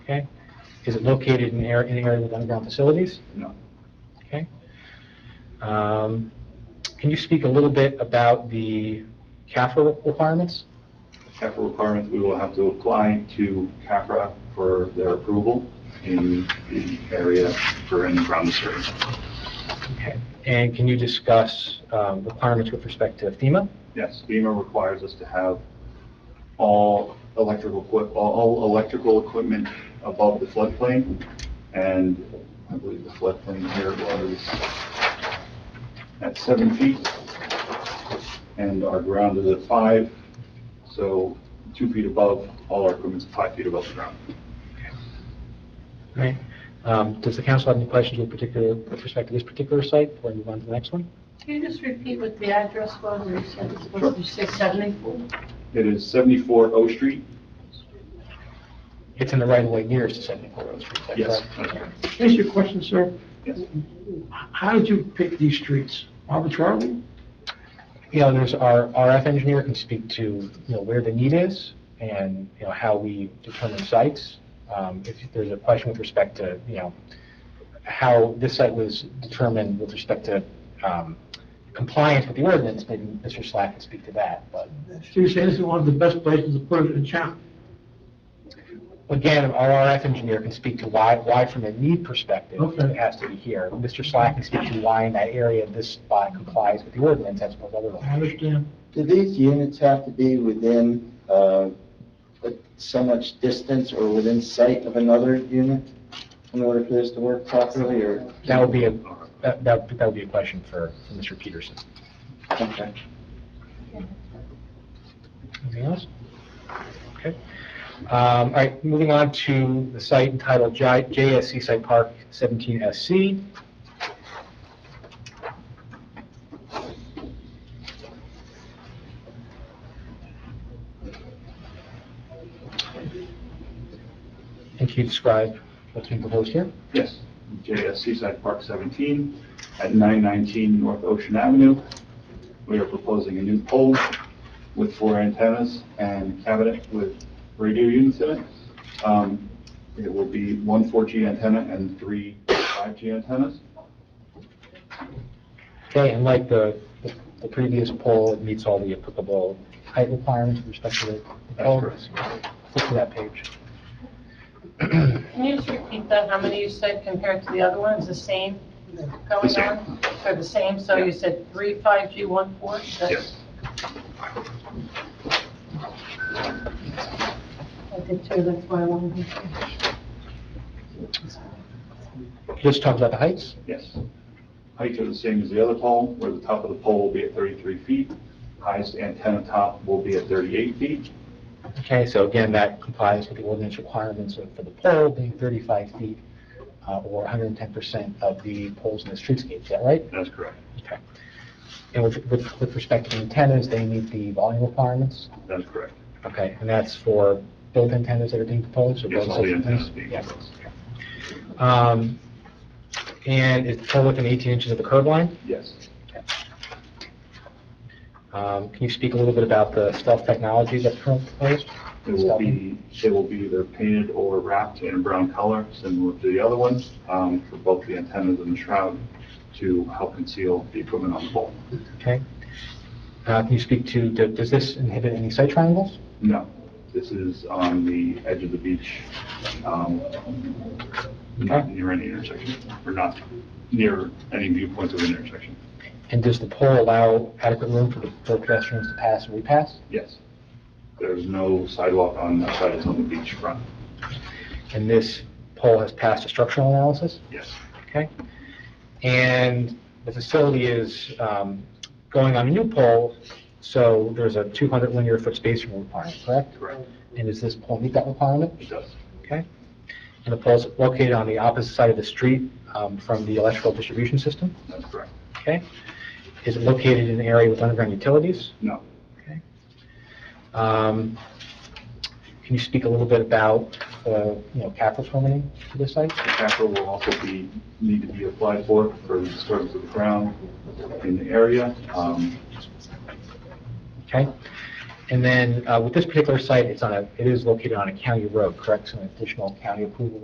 Okay. Is it located in an area, any area with underground facilities? No. Okay. Um, Can you speak a little bit about the CAFR requirements? CAFRA requirements, we will have to apply to CAFRA for their approval in the area for any ground disturbance. Okay. And can you discuss um, requirements with respect to FEMA? Yes, FEMA requires us to have all electrical, equi- all- all electrical equipment above the floodplain, and I believe the floodplain here was at seven feet, and our ground is at five, so two feet above, all our equipment's five feet above the ground. Right. Um, Does the council have any questions with particular, with respect to this particular site before we move on to the next one? Can you just repeat what the address was? You said it's supposed to be 674? It is 74 O Street? It's in the right-of-way nearest to 74 Rose Street, is that correct? that's correct. Can I ask you a question, sir? Yes. How did you pick these streets? Arbitrarily? you know, there's, our RF engineer can speak to, you know, where the need is and, you know, how we determine sites. Um, If there's a question with respect to, you know, how this site was determined with respect to um, compliance with the ordinance, maybe Mr. Slack can speak to that. But So you're saying this is one of the best places to put it in town? again, our RF engineer can speak to why, why from a need perspective, Okay. it has to be here. Mr. Slack can speak to why in that area this spot complies with the ordinance as well as other I ones. understand. Do these units have to be within uh, a- so much distance or within sight of another unit in order for this to work properly, or? That would be a, that, that that would be a question for for Mr. Peterson. Okay. Anything else? Okay. Um, All right, moving on to the site entitled J- JSC Site Park 17SC. And can you describe what's being proposed here? Yes, JS Seaside Park 17 at 919 North Ocean Avenue. We are proposing a new pole with four antennas and cabinet with radio units in it. Um, It will be one 4G antenna and three 5G antennas. Okay, and like the the- the previous poll, it meets all the applicable height requirements with respect to the the poll. That's correct. Flip to that page. Can you just repeat that, how many you said compared to the other ones, the same The going same. on? They're the same, so you said three 5G, one 4? Yes. I did too, that's why I wanted to. Just talk about the heights. Yes. Heights are the same as the other pole, where the top of the pole will be at 33 feet. Highest antenna top will be at 38 feet. Okay, so again, that complies with the ordinance requirements of- for the pole being 35 feet uh, or 110% of the poles in the streetscape, is that right? That's correct. Okay. And with, with with respect to the antennas, they meet the volume requirements? That's correct. Okay, and that's for both antennas that are being proposed? or Yes, both all the sets of antennas being Yes. proposed. Okay. Um, And it's pole within 18 inches of the curb line? Yes. Um, Can you speak a little bit about the stealth technology that's currently proposed? It will be, they will be either painted or wrapped in a brown color, similar to the other ones, um, for both the antennas and the shroud to help conceal the equipment on the pole. Okay. Uh, Can you speak to, do- does this inhibit any site triangles? No, this is on the edge of the beach, um, not near any intersection, or not near any viewpoints of an intersection. And does the pole allow adequate room for the for pedestrians to pass and repass? Yes. There's no sidewalk on that side, it's on the beach front. And this pole has passed a structural analysis? Yes. Okay. And the facility is um, going on a new pole, so there's a 200 linear foot spacing requirement, correct? Correct. And does this pole meet that requirement? It does. Okay. And the pole's located on the opposite side of the street um, from the electrical distribution system? That's correct. Okay. Is it located in an area with underground utilities? No. Um, Can you speak a little bit about, uh, you know, capital permitting for this site? The capital will also be, need to be applied for, for the disturbance of the ground in the area. Um, Okay? And then uh, with this particular site, it's on a, it is located on a county road, correct? So an additional county approval